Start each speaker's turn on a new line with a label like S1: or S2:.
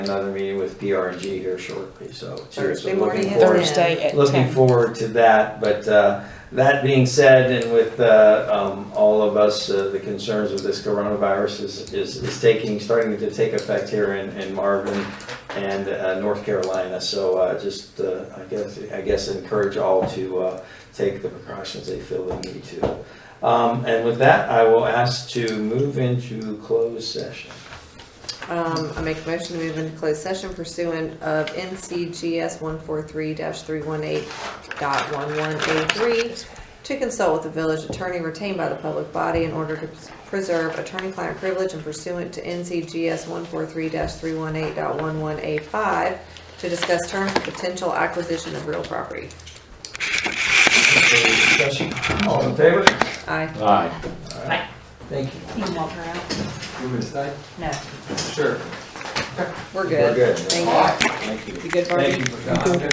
S1: another meeting with PRG here shortly, so seriously
S2: Thursday
S1: looking
S2: morning at
S1: forward,
S3: Thursday at
S1: looking
S3: 10.
S1: forward to that. But uh, that being said, and with uh, um, all of us, uh, the concerns of this coronavirus is, is is taking, starting to take effect here in in Marvin and uh, North Carolina. So uh, just, uh, I guess, I guess encourage all to uh, take the precautions they feel they need to. Um, And with that, I will ask to move into closed session.
S2: Um, I make a motion to move into closed session pursuant of NCGS one four three three one eight dot one one eight three to consult with the village attorney retained by the public body in order to preserve attorney-client privilege and pursuant to NCGS one four three three one eight dot one one eight five to discuss terms of potential acquisition of real property.
S1: Any discussion? All in favor?
S2: Aye.
S1: Thank you.
S3: You can walk her out.
S1: You want me to stay?
S3: No.
S1: Sure.
S2: We're
S1: We're
S2: good.
S1: good.
S2: Thank you.
S1: Thank you.
S2: You good, Barbie?
S1: Thank you for coming.